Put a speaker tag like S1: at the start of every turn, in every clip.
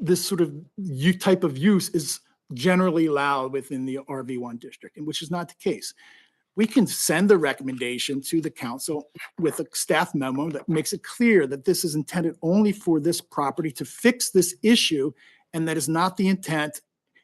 S1: this sort of u- type of use is generally allowed within the RV1 district, and which is not the case. We can send the recommendation to the council with a staff memo that makes it clear that this is intended only for this property to fix this issue, and that is not the intent.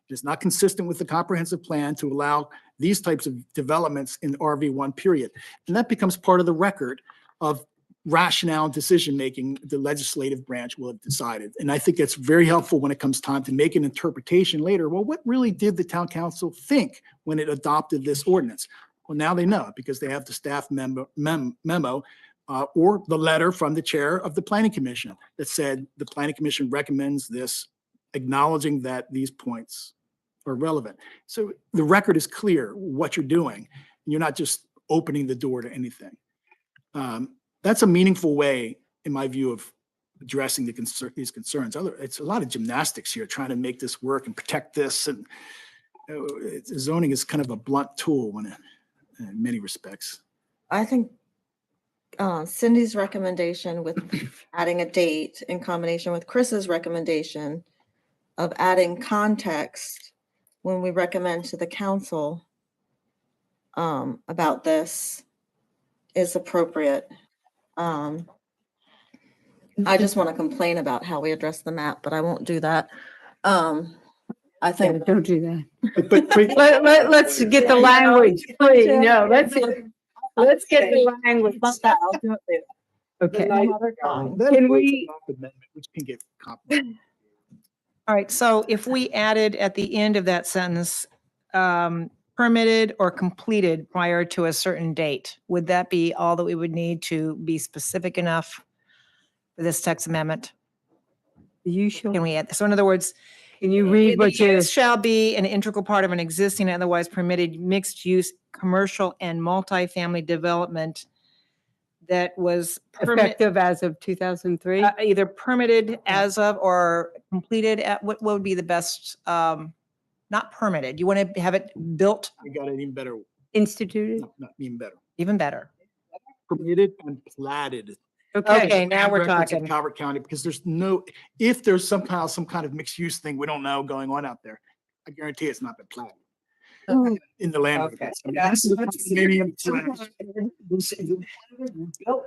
S1: It is not consistent with the comprehensive plan to allow these types of developments in RV1 period. And that becomes part of the record of rationale and decision-making the legislative branch will have decided. And I think that's very helpful when it comes time to make an interpretation later. Well, what really did the town council think when it adopted this ordinance? Well, now they know because they have the staff memo, mem- memo uh, or the letter from the chair of the planning commission that said the planning commission recommends this, acknowledging that these points are relevant. So the record is clear what you're doing. You're not just opening the door to anything. Um, that's a meaningful way, in my view, of addressing the concern, these concerns. Other, it's a lot of gymnastics here, trying to make this work and protect this. And uh, it's- zoning is kind of a blunt tool when, it- in many respects.
S2: I think uh, Cindy's recommendation with adding a date in combination with Chris's recommendation of adding context when we recommend to the council um, about this is appropriate. Um, I just want to complain about how we address the map, but I won't do that. Um, I
S3: Yeah,
S2: think,
S3: don't do that.
S1: But- But, pre-
S3: Let, let, let's get the language, please, no, let's, let's get the language.
S2: about that, I'll do it later.
S3: Okay,
S2: Another time.
S1: that
S3: Can
S1: avoids a
S3: we-
S1: Monmouth amendment, Which can get complicated.
S4: All right, so if we added at the end of that sentence, um, permitted or completed prior to a certain date, would that be all that we would need to be specific enough for this text amendment?
S3: you should,
S4: Can we add, so in other words,
S3: can you read
S4: the
S3: what you,
S4: use Shall be an integral part of an existing otherwise permitted mixed-use commercial and multifamily development that was permit,
S3: effective as of two thousand three?
S4: uh, either permitted as of or completed at, what, what would be the best, um, not permitted, you want to have it built
S1: We got an even better,
S3: Instituted?
S1: no, not even better.
S4: even better.
S1: Permitted and platted
S4: Okay, now
S1: have
S4: we're
S1: records in
S4: talking.
S1: Calvert County, because there's no, if there's somehow some kind of mixed use thing, we don't know going on out there. I guarantee it's not been planned
S3: Mm.
S1: in the land.
S3: Okay.
S1: records. I mean, that's- that's maybe in plan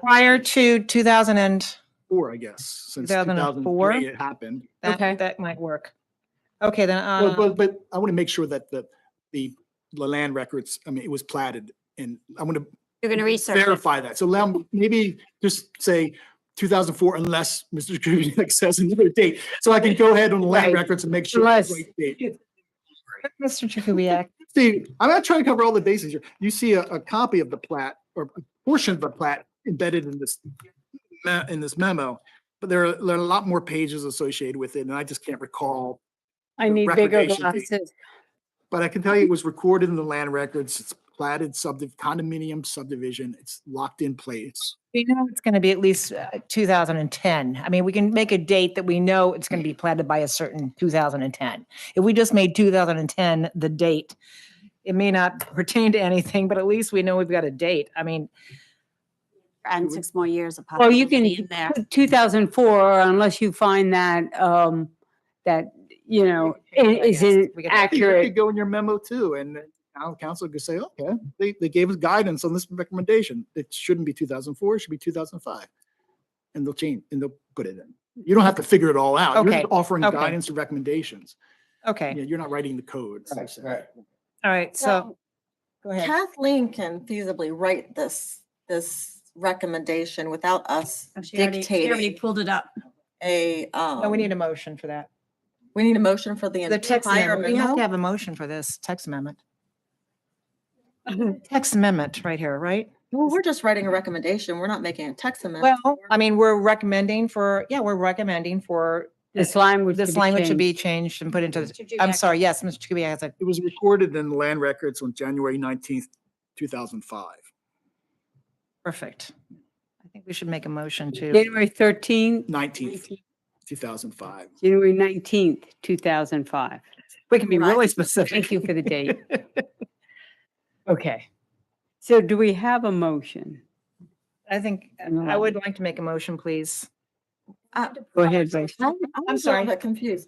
S4: Prior to 2000 and
S1: Four, I guess, since two thousand
S4: 2004?
S1: four it happened.
S3: Okay.
S4: that, that might work. Okay, then,
S1: But,
S4: uh,
S1: but, but I want to make sure that the, the, the land records, I mean, it was platted and I want to
S5: You're going to research it.
S1: verify that. So allow, me- maybe just say two thousand four unless Mr. Kubiac says another date. So I can go ahead on the land
S3: Right.
S1: records and make sure. it's the
S3: Unless-
S1: right date.
S4: Mr. Jakubiec,
S1: Steve, I'm not trying to cover all the bases here. You see a, a copy of the plat or a portion of the plat embedded in this me- in this memo, but there are, there are a lot more pages associated with it, and I just can't recall.
S3: I need bigger
S1: recordation date.
S3: glasses.
S1: But I can tell you it was recorded in the land records. It's platted subdiv- condominium subdivision. It's locked in place.
S4: we know it's going to be at least uh, 2010. I mean, we can make a date that we know it's going to be planted by a certain 2010. If we just made 2010 the date, it may not pertain to anything, but at least we know we've got a date. I mean,
S5: And six more years of
S3: Well, you can-
S5: possibility in there.
S3: Two thousand four, unless you find that, um, that, you know, i-
S4: Yeah, I
S3: is
S4: guess.
S3: it
S4: We could-
S1: You
S3: accurate?
S1: could go in your memo too, and the town council could say, okay, they, they gave us guidance on this recommendation. It shouldn't be two thousand four, it should be two thousand five. And they'll change, and they'll put it in. You don't have to figure it all out. You're just
S4: Okay,
S1: offering
S4: okay.
S1: guidance and recommendations.
S4: okay,
S1: Yeah, you're not writing the code. so to say.
S4: all right, so, go ahead.
S2: Kathleen can feasibly write this, this recommendation without us
S3: Oh,
S5: She already- she already
S2: dictating
S5: pulled it up.
S2: a,
S4: No,
S2: um,
S4: we need a motion for that.
S2: we need a motion for the
S4: The text
S2: entire
S4: amendment, we have to
S2: memo.
S4: have a motion for this text amendment. Text amendment right here, right?
S2: Well, we're just writing a recommendation. We're not making a text amendment.
S4: Well, I mean, we're recommending for, yeah, we're recommending for
S3: This language. to
S4: this
S3: be
S4: language to
S3: changed.
S4: be changed and put into, the- I'm
S5: Kubiak.
S4: sorry, yes, Mr. Kubiac has a,
S1: It was recorded in the land records on January nineteenth, two thousand five.
S4: perfect. I think we should make a motion to,
S3: January thirteenth,
S1: Nineteenth, two thousand five.
S3: January nineteenth, two thousand five.
S4: we can be
S2: Right.
S4: really specific.
S3: Thank you for the date. Okay. So do we have a motion?
S4: I think,
S3: No.
S4: I would like to make a motion, please.
S2: I-
S3: Go ahead, Rachel.
S2: Uh, I'm I'm a
S4: sorry.
S2: little bit confused.